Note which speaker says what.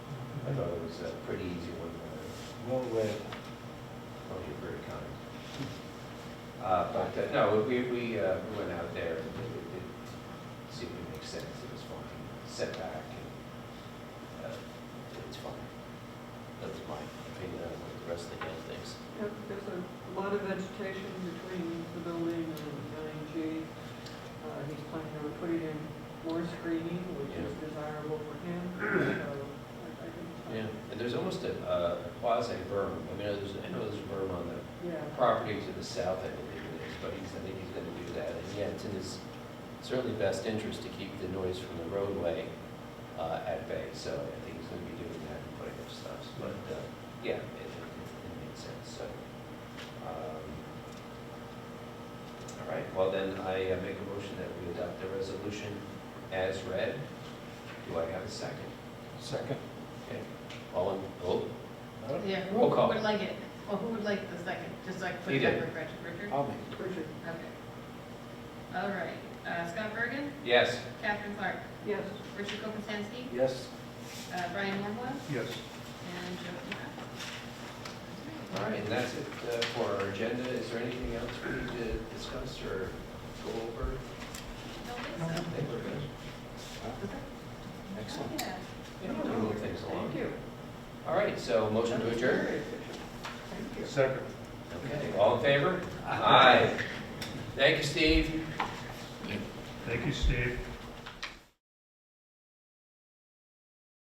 Speaker 1: I thought it was a pretty easy one, uh,
Speaker 2: Well read.
Speaker 1: Montgomery County. Uh, But, uh, no, we, we uh, we went out there and it it did seem to make sense, it was fine, setback, and uh, it's fine.
Speaker 3: That's my opinion on what the rest of the guy thinks.
Speaker 4: Yeah, there's a lot of vegetation between the building and ING. Uh, He's planning on putting in more screening, which is desirable for him, so I- I
Speaker 3: Yeah,
Speaker 4: think.
Speaker 3: and there's almost a uh, quasi berm, I mean, there's, I know there's a berm on the
Speaker 4: Yeah,
Speaker 3: property to the south, I believe it is, but he's, I think he's gonna do that, and yeah, it's in his certainly best interest to keep the noise from the roadway uh, at bay, so I think he's gonna be doing that and putting up stuff, but, uh, yeah, it, it it makes sense, so. um, All right, well then, I uh, make a motion that we adopt the resolution as read. Do I have a second?
Speaker 2: Second.
Speaker 3: Okay, all in, oh,
Speaker 5: Yeah, who
Speaker 3: Roll call.
Speaker 5: would like it, well, who would like the second, just like
Speaker 3: You
Speaker 5: quick
Speaker 3: did.
Speaker 5: number, Richard, Richard?
Speaker 2: I'll make
Speaker 4: Richard,
Speaker 5: Okay. All right, uh, Scott Bergen,
Speaker 3: yes,
Speaker 5: Catherine Clark,
Speaker 4: yes,
Speaker 5: Richard Kopinski,
Speaker 2: it. Yes.
Speaker 5: uh, Brian Hornwell,
Speaker 2: Yes.
Speaker 5: and Joe Kubak.
Speaker 3: all right, and that's it uh, for our agenda, is there anything else we need to discuss or go over?
Speaker 5: Don't think
Speaker 3: I think we're good.
Speaker 5: so.
Speaker 2: Excellent.
Speaker 5: Yeah.
Speaker 3: Yeah, we'll move things
Speaker 4: thank
Speaker 3: along.
Speaker 4: you.
Speaker 3: All right, so motion to adjourn,
Speaker 4: Thank you.
Speaker 2: Second.
Speaker 3: okay, all in favor? Aye. Thank you, Steve.
Speaker 6: Thank you, Steve.